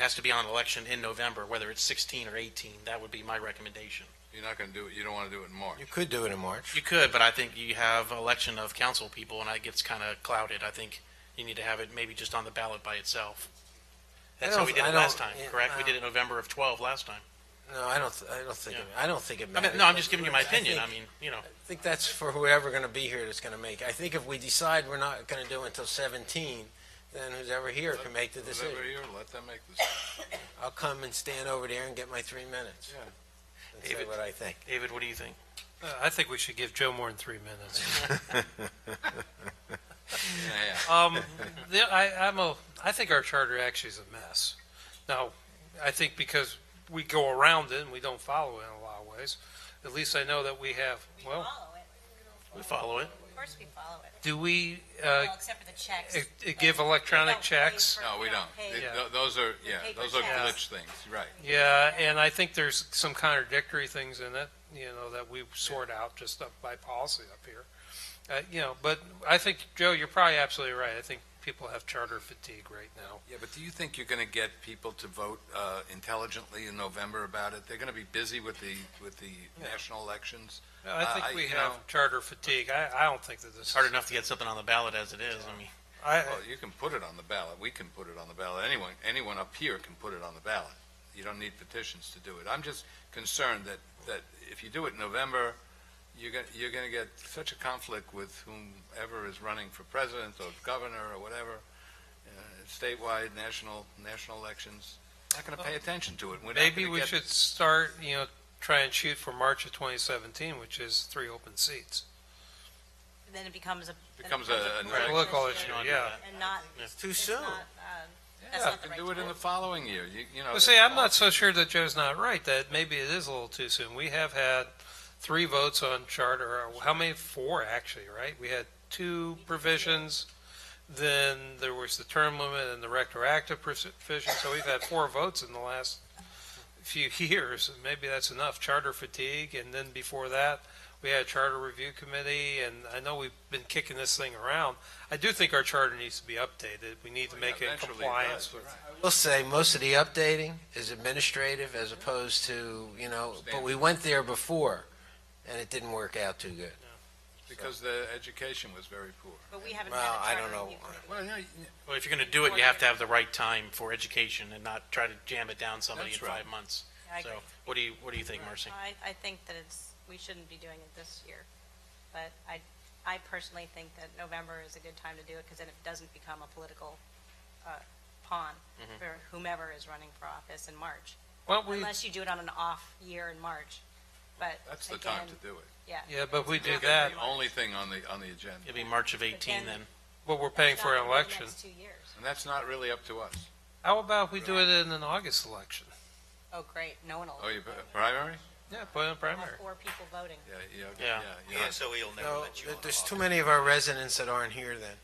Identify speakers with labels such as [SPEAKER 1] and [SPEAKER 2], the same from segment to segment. [SPEAKER 1] has to be on election in November, whether it's 16 or 18. That would be my recommendation.
[SPEAKER 2] You're not gonna do it, you don't wanna do it in March.
[SPEAKER 3] You could do it in March.
[SPEAKER 1] You could, but I think you have election of council people, and it gets kind of clouded. I think you need to have it maybe just on the ballot by itself. That's
[SPEAKER 3] I
[SPEAKER 1] how
[SPEAKER 3] don't-
[SPEAKER 1] we did
[SPEAKER 3] I
[SPEAKER 1] it
[SPEAKER 3] don't-
[SPEAKER 1] last time,
[SPEAKER 3] yeah,
[SPEAKER 1] correct? We
[SPEAKER 3] I
[SPEAKER 1] did it November of 12 last time.
[SPEAKER 3] No, I don't, th- I don't think, it- I don't think it
[SPEAKER 1] I
[SPEAKER 3] matters.
[SPEAKER 1] mean, no, I'm
[SPEAKER 3] but
[SPEAKER 1] just giving you my
[SPEAKER 3] I think-
[SPEAKER 1] opinion. I mean, you know,
[SPEAKER 3] I think that's for whoever gonna be here that's gonna make. I think if we decide we're not gonna do it until seventeen, then who's ever here can make the decision.
[SPEAKER 2] Whatever year, let them make this,
[SPEAKER 3] I'll come and stand over there and get my three minutes.
[SPEAKER 2] Yeah.
[SPEAKER 3] And say
[SPEAKER 1] David-
[SPEAKER 3] what I think.
[SPEAKER 1] David, what do you think?
[SPEAKER 4] Uh, I think we should give Joe more than three minutes.
[SPEAKER 2] yeah,
[SPEAKER 4] Um, the, I, I'm a, I think our charter actually is a mess. Now, I think because we go around it and we don't follow it in a lot of ways, at least I know that we have,
[SPEAKER 5] We
[SPEAKER 4] well,
[SPEAKER 5] follow it.
[SPEAKER 1] We follow it.
[SPEAKER 5] Of course we follow it.
[SPEAKER 4] do we, uh,
[SPEAKER 5] Well, except for the checks.
[SPEAKER 4] it- it give electronic
[SPEAKER 5] We don't pay
[SPEAKER 4] checks?
[SPEAKER 5] for-
[SPEAKER 2] no, we don't.
[SPEAKER 5] pay.
[SPEAKER 2] They-
[SPEAKER 4] Yeah.
[SPEAKER 2] tho- Those are, yeah,
[SPEAKER 5] paper
[SPEAKER 2] those are glitch
[SPEAKER 5] checks.
[SPEAKER 2] things, right.
[SPEAKER 4] yeah, and I think there's some contradictory things in it, you know, that we sort out just up by policy up here. Uh, you know, but I think, Joe, you're probably absolutely right. I think people have charter fatigue right now.
[SPEAKER 2] Yeah, but do you think you're gonna get people to vote uh, intelligently in November about it? They're gonna be busy with the, with the national elections.
[SPEAKER 4] No, I
[SPEAKER 2] Uh,
[SPEAKER 4] think
[SPEAKER 2] I-
[SPEAKER 4] we
[SPEAKER 2] you
[SPEAKER 4] have
[SPEAKER 2] know-
[SPEAKER 4] charter fatigue. I, I don't think that this
[SPEAKER 1] It's
[SPEAKER 4] is.
[SPEAKER 1] hard enough to get something on the ballot as it is. I mean,
[SPEAKER 4] I,
[SPEAKER 2] Well, you can put it on the ballot, we can put it on the ballot, anyone, anyone up here can put it on the ballot. You don't need petitions to do it. I'm just concerned that, that if you do it in November, you're gonna, you're gonna get such a conflict with whomever is running for president or governor or whatever, uh, statewide, national, national elections, not gonna pay attention to it. We're not
[SPEAKER 4] Maybe
[SPEAKER 2] gonna
[SPEAKER 4] we
[SPEAKER 2] get-
[SPEAKER 4] should start, you know, try and shoot for March of 2017, which is three open seats.
[SPEAKER 5] And Then it becomes a. then it
[SPEAKER 2] Becomes a- an
[SPEAKER 4] Right, local issue,
[SPEAKER 1] don't do
[SPEAKER 4] yeah.
[SPEAKER 5] And not.
[SPEAKER 3] It's too
[SPEAKER 5] it's
[SPEAKER 3] soon.
[SPEAKER 5] not, um, That's
[SPEAKER 2] Yeah, you
[SPEAKER 5] not the
[SPEAKER 2] can
[SPEAKER 5] right
[SPEAKER 2] do it in
[SPEAKER 5] time.
[SPEAKER 2] the following year, you, you know.
[SPEAKER 4] Well,
[SPEAKER 2] that's
[SPEAKER 4] see, I'm
[SPEAKER 2] all.
[SPEAKER 4] not so sure that Joe's not right, that maybe it is a little too soon. We have had three votes on charter, or how many? Four, actually, right? We had two provisions, then there was the term limit and the retroactive provision, so we've had four votes in the last few years, and maybe that's enough. Charter fatigue, and then before that, we had a charter review committee, and I know we've been kicking this thing around. I do think our charter needs to be updated. We need to
[SPEAKER 2] Well,
[SPEAKER 4] make it in
[SPEAKER 2] eventually it
[SPEAKER 4] compliance
[SPEAKER 2] does,
[SPEAKER 4] with
[SPEAKER 2] right.
[SPEAKER 3] We'll say most of the updating is administrative as opposed to, you know, but we went there before and it didn't work out too good.
[SPEAKER 2] Because the education was very poor.
[SPEAKER 5] But we haven't
[SPEAKER 3] Well, I
[SPEAKER 5] had a
[SPEAKER 3] don't
[SPEAKER 5] charter
[SPEAKER 3] know.
[SPEAKER 5] review committee.
[SPEAKER 2] Well, yeah, you-
[SPEAKER 1] Well, if you're going to do it, you have to have the right time for education and not try to jam it down somebody in
[SPEAKER 2] That's right.
[SPEAKER 1] five months.
[SPEAKER 5] I
[SPEAKER 1] So
[SPEAKER 5] agree. Uh,
[SPEAKER 1] what do you, what do you think, Marcy?
[SPEAKER 5] I, I think that it's, we shouldn't be doing it this year. But I, I personally think that November is a good time to do it because then it doesn't become a political uh, pawn
[SPEAKER 4] Mm-hmm.
[SPEAKER 5] for whomever is running for office in March.
[SPEAKER 4] Well, we,
[SPEAKER 5] Unless you do it on an off year in March. But
[SPEAKER 2] that's the time to
[SPEAKER 5] again,
[SPEAKER 2] do it.
[SPEAKER 5] Yeah.
[SPEAKER 4] yeah, but we do
[SPEAKER 2] Make it
[SPEAKER 4] that.
[SPEAKER 2] The only thing on the, on the agenda,
[SPEAKER 1] It'll be March of 18
[SPEAKER 5] Again,
[SPEAKER 1] then.
[SPEAKER 4] But we're paying for an
[SPEAKER 5] Not in the
[SPEAKER 4] election.
[SPEAKER 5] next two years.
[SPEAKER 2] and that's not really up to us.
[SPEAKER 4] How about we do it in an August election?
[SPEAKER 5] Oh, great, no one will.
[SPEAKER 2] Oh, you, primary?
[SPEAKER 4] Yeah, put it in
[SPEAKER 5] Have
[SPEAKER 4] primary.
[SPEAKER 5] Four people voting.
[SPEAKER 2] Yeah, yeah, yeah.
[SPEAKER 1] Yeah.
[SPEAKER 2] yeah.
[SPEAKER 6] so he'll never
[SPEAKER 3] No,
[SPEAKER 6] let you on.
[SPEAKER 3] there's too many of our residents that aren't here then.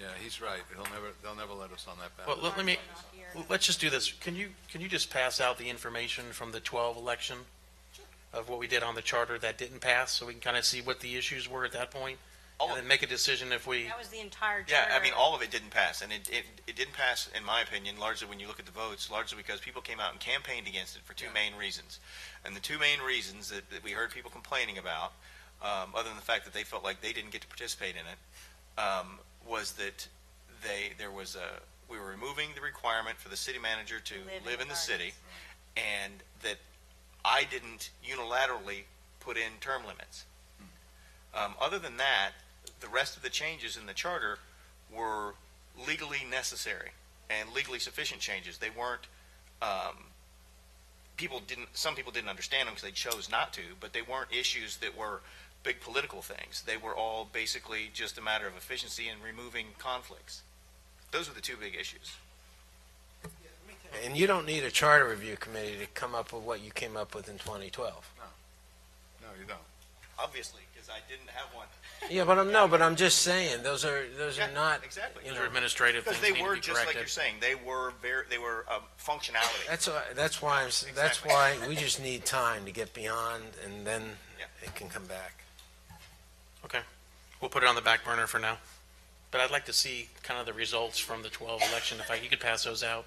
[SPEAKER 2] Yeah, he's right. He'll never, they'll never let us on that
[SPEAKER 1] Well, let
[SPEAKER 2] ballot.
[SPEAKER 1] let me,
[SPEAKER 5] March is off year.
[SPEAKER 1] Well, Let's just do this. Can you, can you just pass out the information from the 12 election of what we did on the charter that didn't pass, so we can kind of see what the issues were at that point?
[SPEAKER 6] All
[SPEAKER 1] And
[SPEAKER 6] of-
[SPEAKER 1] then make a decision if we,
[SPEAKER 5] That was the entire
[SPEAKER 6] Yeah,
[SPEAKER 5] charter.
[SPEAKER 6] I mean, all of it didn't pass, and it, it, it didn't pass, in my opinion, largely when you look at the votes, largely because people came out and campaigned against it for two main reasons. And the two main reasons that, that we heard people complaining about, um, other than the fact that they felt like they didn't get to participate in it, um, was that they, there was a, we were removing the requirement for the city manager to
[SPEAKER 5] Live in
[SPEAKER 6] live
[SPEAKER 5] the
[SPEAKER 6] in the city,
[SPEAKER 5] gardens.
[SPEAKER 6] and that I didn't unilaterally put in term limits. Um, other than that, the rest of the changes in the charter were legally necessary and legally sufficient changes. They weren't, um, people didn't, some people didn't understand them because they chose not to, but they weren't issues that were big political things. They were all basically just a matter of efficiency and removing conflicts. Those were the two big issues.
[SPEAKER 3] And you don't need a charter review committee to come up with what you came up with in 2012.
[SPEAKER 2] No, you don't.
[SPEAKER 6] Obviously, because I didn't have one.
[SPEAKER 3] Yeah, but I'm, no, but I'm just saying, those are, those are
[SPEAKER 6] Yeah,
[SPEAKER 3] not,
[SPEAKER 6] exactly.
[SPEAKER 3] you
[SPEAKER 1] those
[SPEAKER 3] know,
[SPEAKER 1] are administrative
[SPEAKER 6] Because
[SPEAKER 1] things
[SPEAKER 6] they
[SPEAKER 1] need to
[SPEAKER 6] were,
[SPEAKER 1] be
[SPEAKER 6] just like you're
[SPEAKER 1] corrected.
[SPEAKER 6] saying, they were very, they were um, functionality.
[SPEAKER 3] that's, why- that's why I'm, s- that's
[SPEAKER 6] Exactly.
[SPEAKER 3] why we just need time to get beyond and then
[SPEAKER 6] Yeah.
[SPEAKER 3] it can come back.
[SPEAKER 1] We'll put it on the back burner for now. But I'd like to see kind of the results from the 12 election, if I, you could pass those out.